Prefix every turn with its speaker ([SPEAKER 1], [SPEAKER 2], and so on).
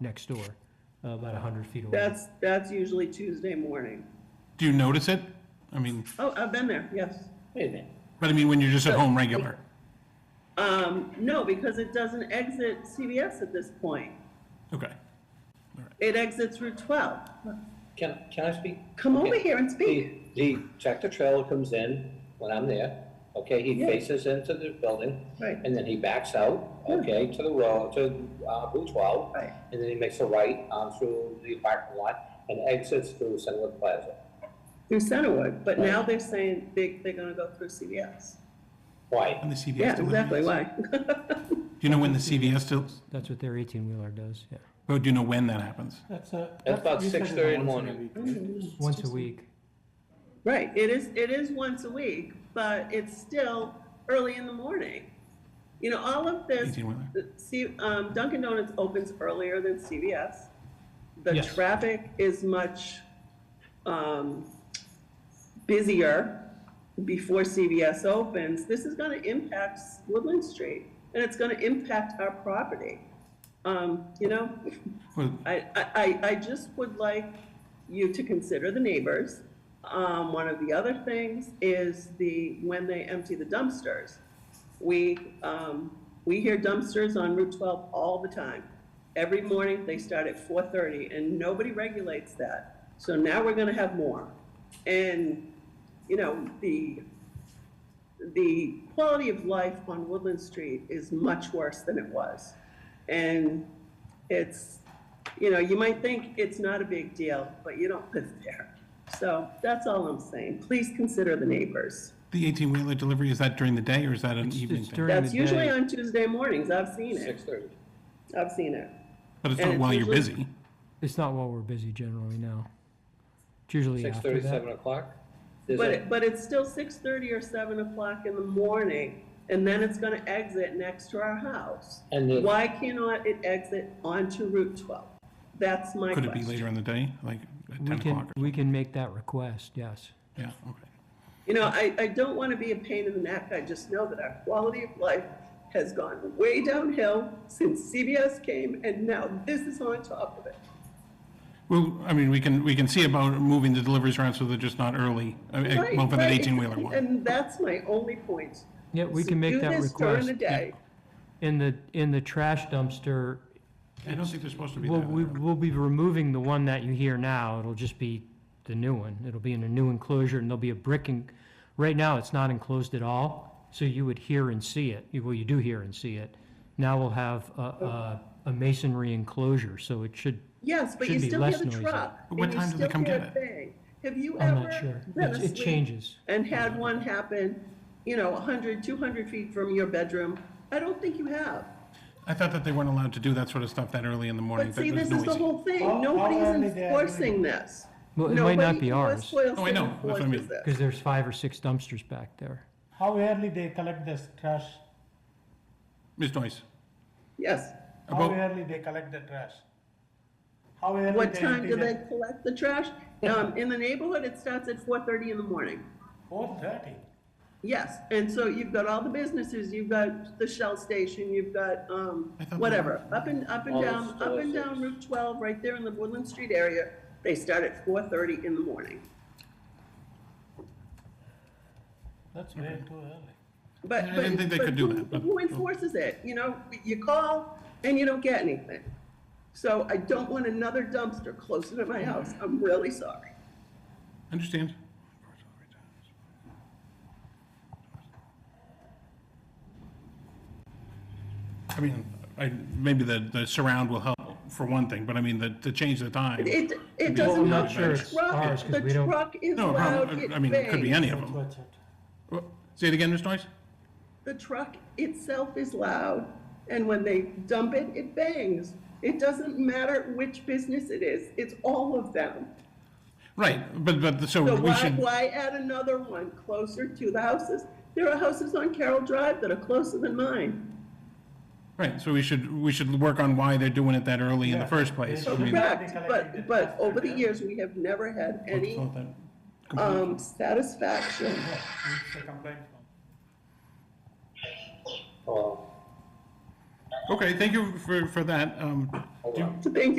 [SPEAKER 1] next door, uh, about 100 feet away.
[SPEAKER 2] That's, that's usually Tuesday morning.
[SPEAKER 3] Do you notice it? I mean,
[SPEAKER 2] Oh, I've been there, yes.
[SPEAKER 4] Wait a minute.
[SPEAKER 3] but I mean, when you're just at home regular.
[SPEAKER 2] Um, no, because it doesn't exit CBS at this point.
[SPEAKER 3] Okay.
[SPEAKER 2] It exits Route 12.
[SPEAKER 4] Can, can I speak?
[SPEAKER 2] Come over
[SPEAKER 4] Okay.
[SPEAKER 2] here and
[SPEAKER 4] The,
[SPEAKER 2] speak.
[SPEAKER 4] the tractor trailer comes in when I'm there, okay, he
[SPEAKER 2] Yeah.
[SPEAKER 4] faces into the building.
[SPEAKER 2] Right.
[SPEAKER 4] And then he backs out, okay, to the road, to, uh, Route twelve.
[SPEAKER 2] Right.
[SPEAKER 4] And then he makes a right, um, through the parking lot and exits through Sunwood Plaza.
[SPEAKER 2] Through Centerwood, but now they're saying they, they're gonna go through CBS.
[SPEAKER 4] Why?
[SPEAKER 3] And the CVS.
[SPEAKER 2] Yeah,
[SPEAKER 3] still
[SPEAKER 2] exactly,
[SPEAKER 3] operates?
[SPEAKER 2] why?
[SPEAKER 3] Do you know when the CVS still,
[SPEAKER 1] That's what their 18-wheeler does, yeah.
[SPEAKER 3] oh, do you know when that happens?
[SPEAKER 5] That's a.
[SPEAKER 4] That's about
[SPEAKER 5] you said
[SPEAKER 4] 6:30 in
[SPEAKER 5] it's
[SPEAKER 4] the
[SPEAKER 5] once
[SPEAKER 4] morning.
[SPEAKER 5] a week.
[SPEAKER 1] Once a week.
[SPEAKER 2] Right, it is, it is once a week, but it's still early in the morning. You know, all of this,
[SPEAKER 3] 18-wheeler.
[SPEAKER 2] the- see, um, Dunkin' Donuts opens earlier than CVS. The
[SPEAKER 1] Yes.
[SPEAKER 2] traffic is much, um, busier before CVS opens. This is gonna impact Woodland Street, and it's gonna impact our property. Um, you know,
[SPEAKER 3] Well,
[SPEAKER 2] I, I, I- I just would like you to consider the neighbors. Um, one of the other things is the, when they empty the dumpsters. We, um, we hear dumpsters on Route twelve all the time. Every morning, they start at four thirty, and nobody regulates that. So now we're gonna have more. And, you know, the, the quality of life on Woodland Street is much worse than it was. And it's, you know, you might think it's not a big deal, but you don't live there. So that's all I'm saying. Please consider the neighbors.
[SPEAKER 3] the eighteen-wheeler delivery, is that during the day or is that an
[SPEAKER 1] It's-
[SPEAKER 3] evening
[SPEAKER 1] it's
[SPEAKER 3] thing?
[SPEAKER 1] during- the
[SPEAKER 2] That's usually
[SPEAKER 1] day.
[SPEAKER 2] on Tuesday mornings. I've seen
[SPEAKER 4] Six
[SPEAKER 2] it.
[SPEAKER 4] thirty.
[SPEAKER 2] I've seen it.
[SPEAKER 3] But it's
[SPEAKER 2] and
[SPEAKER 3] not
[SPEAKER 2] it's
[SPEAKER 3] while you're
[SPEAKER 2] usually-
[SPEAKER 3] busy.
[SPEAKER 1] It's not while we're busy generally, no. It's usually
[SPEAKER 4] Six
[SPEAKER 1] after
[SPEAKER 4] thirty,
[SPEAKER 1] that.
[SPEAKER 4] seven o'clock. There's
[SPEAKER 2] But,
[SPEAKER 4] a-
[SPEAKER 2] it- but it's still six thirty or seven o'clock in the morning, and then it's gonna exit next to our house.
[SPEAKER 4] And the-
[SPEAKER 2] Why cannot it exit onto Route twelve? That's my
[SPEAKER 3] Could it be
[SPEAKER 2] question.
[SPEAKER 3] later in the day, like at
[SPEAKER 1] We
[SPEAKER 3] ten
[SPEAKER 1] can,
[SPEAKER 3] o'clock? or-
[SPEAKER 1] we can make that request, yes.
[SPEAKER 3] Yeah, okay.
[SPEAKER 2] You know, I, I don't wanna be a pain in the neck, I just know that our quality of life has gone way downhill since CBS came, and now this is on top of it.
[SPEAKER 3] Well, I mean, we can, we can see about moving the deliveries around so they're just not early. I mean,
[SPEAKER 2] Right,
[SPEAKER 3] Well, for that
[SPEAKER 2] right,
[SPEAKER 3] eighteen-wheeler one.
[SPEAKER 2] And that's my only point.
[SPEAKER 1] Yeah, we
[SPEAKER 2] So
[SPEAKER 1] can make that
[SPEAKER 2] Do this during
[SPEAKER 1] request.
[SPEAKER 2] the day.
[SPEAKER 1] In the, in the trash dumpster,
[SPEAKER 3] I don't think they're supposed to be
[SPEAKER 1] we'll,
[SPEAKER 3] there.
[SPEAKER 1] we- we'll be removing the one that you hear now. It'll just be the new one. It'll be in a new enclosure and there'll be a brick and, right now, it's not enclosed at all. So you would hear and see it. You- Well, you do hear and see it. Now we'll have a, a, a masonry enclosure, so it should,
[SPEAKER 2] Yes, but you
[SPEAKER 1] Should be
[SPEAKER 2] still hear
[SPEAKER 1] less
[SPEAKER 2] the
[SPEAKER 1] noisy.
[SPEAKER 2] truck.
[SPEAKER 3] But what
[SPEAKER 2] and you
[SPEAKER 3] time do they
[SPEAKER 2] still
[SPEAKER 3] come
[SPEAKER 2] hear
[SPEAKER 3] get
[SPEAKER 2] a bang. Have you
[SPEAKER 1] I'm
[SPEAKER 2] ever
[SPEAKER 1] not sure.
[SPEAKER 2] been
[SPEAKER 1] It's- It
[SPEAKER 2] asleep
[SPEAKER 1] changes.
[SPEAKER 2] And had one happen, you know, 100, 200 feet from your bedroom? I don't think you have.
[SPEAKER 3] I thought that they weren't allowed to do that sort of stuff that early in the morning.
[SPEAKER 2] But
[SPEAKER 3] that
[SPEAKER 2] see,
[SPEAKER 3] was
[SPEAKER 2] this is the
[SPEAKER 3] noisy.
[SPEAKER 2] whole thing.
[SPEAKER 5] How- how
[SPEAKER 2] Nobody's
[SPEAKER 5] early they are
[SPEAKER 2] enforcing this.
[SPEAKER 1] Well, it might not
[SPEAKER 2] Nobody
[SPEAKER 1] be
[SPEAKER 2] in
[SPEAKER 1] ours.
[SPEAKER 2] West Boyle
[SPEAKER 3] Oh, I
[SPEAKER 2] City
[SPEAKER 3] know. That's what I
[SPEAKER 2] enforces
[SPEAKER 3] mean.
[SPEAKER 2] this.
[SPEAKER 1] Because there's five or six dumpsters back there.
[SPEAKER 5] How early they collect this trash?
[SPEAKER 3] Ms. Noyce,
[SPEAKER 2] Yes.
[SPEAKER 5] How
[SPEAKER 3] About-
[SPEAKER 5] early they collect the trash? How early?
[SPEAKER 2] What
[SPEAKER 5] they
[SPEAKER 2] time
[SPEAKER 5] empty
[SPEAKER 2] do
[SPEAKER 5] the-
[SPEAKER 2] they collect the trash? Um, in the neighborhood, it starts at 4:30 in the morning.
[SPEAKER 5] Four thirty.
[SPEAKER 2] Yes, and so you've got all the businesses, you've got the Shell station, you've got, um,
[SPEAKER 3] I thought that-
[SPEAKER 2] whatever, up and, up and
[SPEAKER 4] All
[SPEAKER 2] down,
[SPEAKER 4] the
[SPEAKER 2] up and down
[SPEAKER 4] stores.
[SPEAKER 2] Route twelve, right there in the Woodland Street area. They start at four thirty in the morning.
[SPEAKER 5] That's way too early.
[SPEAKER 2] But,
[SPEAKER 3] I
[SPEAKER 2] but,
[SPEAKER 3] didn't think they
[SPEAKER 2] but
[SPEAKER 3] could do
[SPEAKER 2] who-
[SPEAKER 3] that, but- oh.
[SPEAKER 2] Who enforces it? You know, you call and you don't get anything. So I don't want another dumpster closer to my house. I'm really sorry.
[SPEAKER 3] understand? I mean, I, maybe the, the surround will help for one thing, but I mean, the, to change the time.
[SPEAKER 2] It, it
[SPEAKER 3] Well,
[SPEAKER 2] doesn't
[SPEAKER 3] I'm
[SPEAKER 2] help
[SPEAKER 3] not sure
[SPEAKER 2] the
[SPEAKER 3] it's
[SPEAKER 1] ours,
[SPEAKER 2] truck.
[SPEAKER 1] 'cause we
[SPEAKER 2] The
[SPEAKER 1] don't-
[SPEAKER 2] truck is
[SPEAKER 3] No,
[SPEAKER 2] loud,
[SPEAKER 3] problem. I mean, it could be
[SPEAKER 2] bangs.
[SPEAKER 3] any of them.
[SPEAKER 5] Watch it.
[SPEAKER 3] Say it again, Ms. Noyce?
[SPEAKER 2] The truck itself is loud, and when they dump it, it bangs. It doesn't matter which business it is, it's all of them.
[SPEAKER 3] Right, but, but, so
[SPEAKER 2] So
[SPEAKER 3] we
[SPEAKER 2] why,
[SPEAKER 3] should,
[SPEAKER 2] why add another one closer to the houses? There are houses on Carroll Drive that are closer than mine.
[SPEAKER 3] right, so we should, we should work on why they're doing it that early in the
[SPEAKER 5] Yeah.
[SPEAKER 3] first place. I mean,
[SPEAKER 2] Correct, but, but over the years, we have never had any,
[SPEAKER 3] thought that-
[SPEAKER 2] um, satisfaction.
[SPEAKER 5] It's a complaint form.
[SPEAKER 4] Oh.
[SPEAKER 3] Okay, thank you for, for that. Um, do you-
[SPEAKER 2] So thank you